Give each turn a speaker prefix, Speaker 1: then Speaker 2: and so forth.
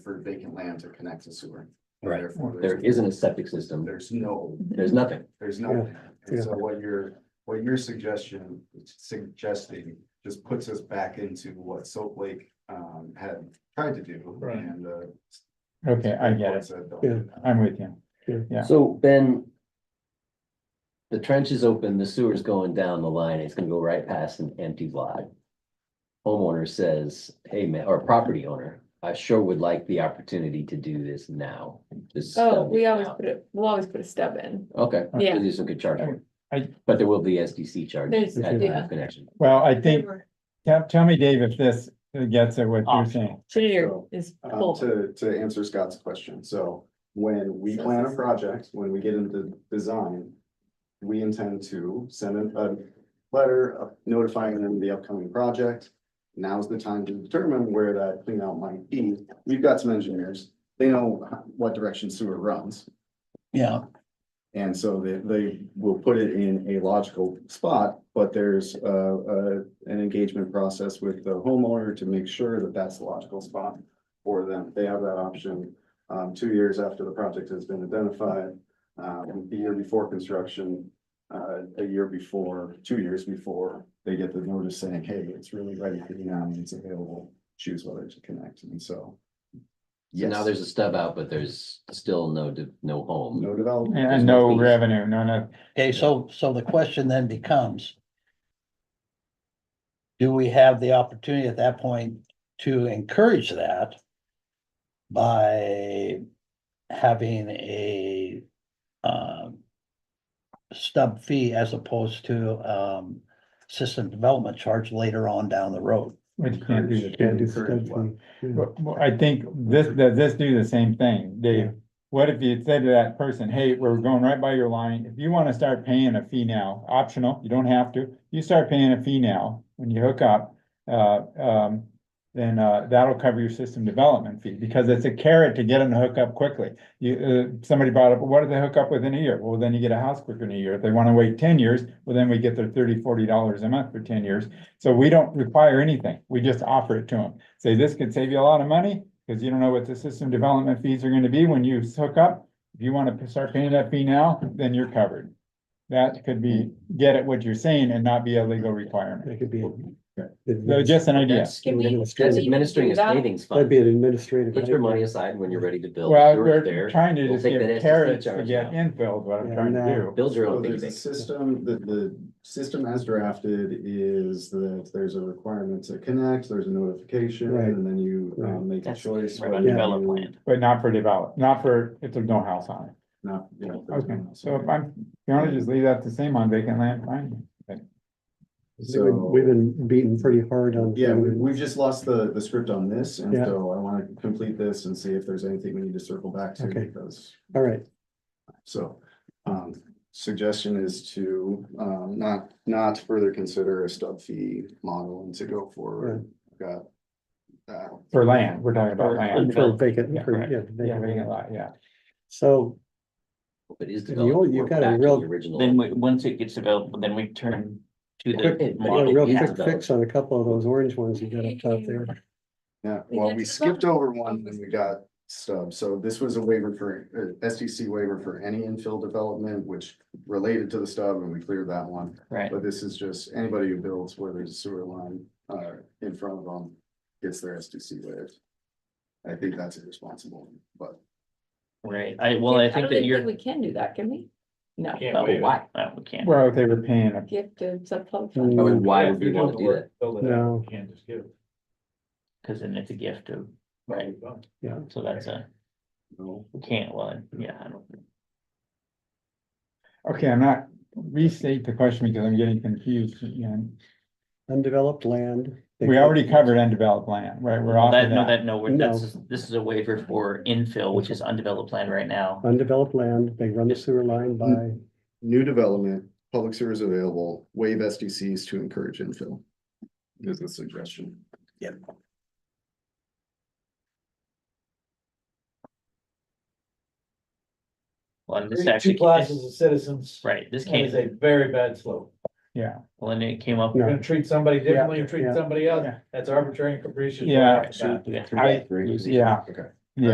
Speaker 1: vacant land to connect to sewer.
Speaker 2: Right.
Speaker 1: Therefore,
Speaker 2: There
Speaker 1: there's,
Speaker 2: isn't a septic system.
Speaker 1: there's no,
Speaker 2: There's nothing.
Speaker 1: there's no, and so what you're, what your suggestion, suggesting just puts us back into what Soap Lake um had tried to do.
Speaker 3: Right.
Speaker 1: And uh
Speaker 3: Okay, I get it.
Speaker 1: said, don't
Speaker 4: Yeah.
Speaker 1: do that.
Speaker 3: I'm with you. Yeah.
Speaker 2: So Ben. The trench is open, the sewer's going down the line, it's gonna go right past an empty lot. Homeowner says, hey, man, or property owner, I sure would like the opportunity to do this now. Just
Speaker 5: Oh,
Speaker 2: stub
Speaker 5: we
Speaker 2: it
Speaker 5: always
Speaker 2: out."
Speaker 5: put it, we'll always put a stub in.
Speaker 2: Okay.
Speaker 5: Yeah.
Speaker 2: There's some good charge for
Speaker 3: I-
Speaker 2: it. But there will be SDC charge at
Speaker 5: There's-
Speaker 2: time
Speaker 5: yeah.
Speaker 2: of connection.
Speaker 3: Well, I think, tell, tell me, Dave, if this gets at what you're saying.
Speaker 5: Engineer
Speaker 1: So,
Speaker 5: is
Speaker 1: Uh,
Speaker 5: full.
Speaker 1: to, to answer Scott's question, so when we
Speaker 5: So
Speaker 1: plan a
Speaker 5: this-
Speaker 1: project, when we get into design. We intend to send a, a letter of notifying them of the upcoming project. Now's the time to determine where that clean out might be. We've got some engineers, they know what direction sewer runs.
Speaker 6: Yeah,
Speaker 1: And so they, they will put it in a logical spot, but there's, uh, uh, an engagement process with the homeowner to make sure that that's the logical spot for them. They have that option, um, two years after the project has been identified, um, the year before construction, uh, a year before, two years before, they get the notice saying, hey, it's really ready for you now, and it's available, choose whether to connect, and so.
Speaker 2: So now
Speaker 1: Yes.
Speaker 2: there's a stub out, but there's still no, de- no home.
Speaker 1: No development.
Speaker 3: And no revenue, no, no,
Speaker 6: okay, so, so the question then becomes. Do we have the opportunity at that point to encourage that? By having a, um. Stub fee as opposed to, um, system development charge later on down the road.
Speaker 3: we can't do
Speaker 1: Encourage.
Speaker 3: that.
Speaker 4: Can't do stuff
Speaker 1: Encourage
Speaker 4: from- yeah.
Speaker 3: Well, well, I think this, does this do the same thing, Dave? What if you said to that person, hey, we're going right by your line, if you wanna start paying a fee now, optional, you don't have to. You start paying a fee now, when you hook up, uh, um, then, uh, that'll cover your system development fee, because it's a carrot to get them to hook up quickly. You, uh, somebody brought up, what if they hook up within a year? Well, then you get a house quicker in a year. If they wanna wait ten years, well, then we get their thirty, forty dollars a month for ten years. So we don't require anything. We just offer it to them. Say, this could save you a lot of money, because you don't know what the system development fees are gonna be when you hook up. If you wanna p- start paying that fee now, then you're covered. That could be, get at what you're saying and not be a legal requirement.
Speaker 4: That could be.
Speaker 3: So just an idea.
Speaker 2: That's
Speaker 5: Can we-
Speaker 2: that's
Speaker 4: That'd
Speaker 2: administering a
Speaker 5: That-
Speaker 2: savings fund.
Speaker 4: be an administrative.
Speaker 2: Put your money aside when you're ready to build.
Speaker 3: Well,
Speaker 2: Yours
Speaker 3: we're
Speaker 2: there.
Speaker 3: trying to
Speaker 2: We'll
Speaker 3: just
Speaker 2: take that
Speaker 3: give
Speaker 2: SSD
Speaker 3: carrots to
Speaker 2: charge
Speaker 3: get
Speaker 2: now.
Speaker 3: infilled, what I'm
Speaker 4: Yeah,
Speaker 3: thinking
Speaker 4: no.
Speaker 3: to do.
Speaker 2: Build your
Speaker 1: So
Speaker 2: own
Speaker 1: there's
Speaker 2: think
Speaker 1: a
Speaker 2: tank.
Speaker 1: system, the, the system as drafted is that there's a requirement to connect, there's a notification,
Speaker 4: Right.
Speaker 1: and then you,
Speaker 4: Right.
Speaker 1: um, make a
Speaker 7: That's
Speaker 1: choice.
Speaker 7: right,
Speaker 1: whether
Speaker 4: yeah.
Speaker 7: develop
Speaker 1: you-
Speaker 7: land.
Speaker 3: But not for develop, not for, if there's no house on it.
Speaker 1: Not, you know. there's
Speaker 3: Okay,
Speaker 1: no-
Speaker 3: so if I'm, if you wanna just leave that the same on vacant land, fine.
Speaker 4: We've we've been beaten pretty hard on.
Speaker 1: Yeah, we, we've just lost the, the script on this, and
Speaker 4: Yeah.
Speaker 1: so I wanna complete this and see if there's anything we need to circle back to,
Speaker 4: Okay.
Speaker 1: because,
Speaker 4: All right,
Speaker 1: so. Um, suggestion is to, um, not, not further consider a stub fee model and to go forward. Got. Uh,
Speaker 3: For land, we're talking about
Speaker 7: For-
Speaker 3: land.
Speaker 4: for
Speaker 7: Unfilled.
Speaker 4: vacant,
Speaker 7: Yeah,
Speaker 4: for-
Speaker 7: correct.
Speaker 4: yeah,
Speaker 3: Yeah,
Speaker 4: vacant
Speaker 3: vacant
Speaker 4: lot.
Speaker 3: lot, yeah.
Speaker 4: So,
Speaker 2: But is
Speaker 4: And you-
Speaker 2: developed,
Speaker 4: you
Speaker 2: we're
Speaker 4: got a
Speaker 2: back to the
Speaker 4: real-
Speaker 2: original.
Speaker 7: Then we, once it gets developed, then we turn to the
Speaker 2: Quick-
Speaker 4: I got a
Speaker 7: model.
Speaker 4: real
Speaker 2: Yeah.
Speaker 4: quick fix on a couple of those orange ones you got up top there.
Speaker 1: Yeah,
Speaker 5: We
Speaker 1: well,
Speaker 5: did
Speaker 1: we
Speaker 5: the vote.
Speaker 1: skipped over one when we got stub, so this was a waiver for, uh, SDC waiver for any infill development, which related to the stub, and we cleared that one.
Speaker 7: Right,
Speaker 1: But this is just anybody who builds where there's a sewer line, uh, in front of them, gets their SDC waived. I think that's irresponsible, but
Speaker 7: right. I, well, I think
Speaker 5: don't
Speaker 7: that you're.
Speaker 5: We can do that, can we? No,
Speaker 8: Can't
Speaker 2: But
Speaker 8: waive it.
Speaker 2: why?
Speaker 7: Well, we can't.
Speaker 3: Well, if they were paying a
Speaker 5: gift of subclub
Speaker 4: Mm.
Speaker 5: fund.
Speaker 2: I mean, why
Speaker 8: Yeah,
Speaker 2: would
Speaker 8: if
Speaker 2: we
Speaker 8: you're
Speaker 2: wanna
Speaker 8: doing
Speaker 2: do
Speaker 8: the
Speaker 2: that?
Speaker 8: work, Build it
Speaker 4: No.
Speaker 8: out, you can't just give it.
Speaker 7: Cause then it's a gift of, right,
Speaker 8: Done.
Speaker 7: so that's a,
Speaker 1: no.
Speaker 7: we can't, well, yeah, I don't.
Speaker 3: Okay, I'm not, restate the question because I'm getting confused again.
Speaker 4: Undeveloped land. they
Speaker 3: We
Speaker 4: call-
Speaker 3: already covered undeveloped land, right? We're off
Speaker 7: That,
Speaker 3: of
Speaker 7: no,
Speaker 3: that.
Speaker 7: that, no, we're, that's, this is a waiver for infill, which is undeveloped land right now.
Speaker 4: Undeveloped land, they run the sewer line by,
Speaker 1: New development, public sewer is available, waive SDCs to encourage infill. Is a suggestion.
Speaker 7: Well, and this
Speaker 8: Two
Speaker 7: actually,
Speaker 8: classes of citizens.
Speaker 7: right, this
Speaker 8: And
Speaker 7: came,
Speaker 8: it's a very bad slope.
Speaker 3: Yeah,
Speaker 7: well, and it came up.
Speaker 4: No.
Speaker 8: You're gonna treat somebody differently, you treat
Speaker 4: yeah,
Speaker 8: somebody else.
Speaker 3: yeah.
Speaker 8: That's arbitrary and capricious.
Speaker 3: Yeah.
Speaker 8: Right.
Speaker 7: We got three-
Speaker 3: I, yeah,
Speaker 1: Okay.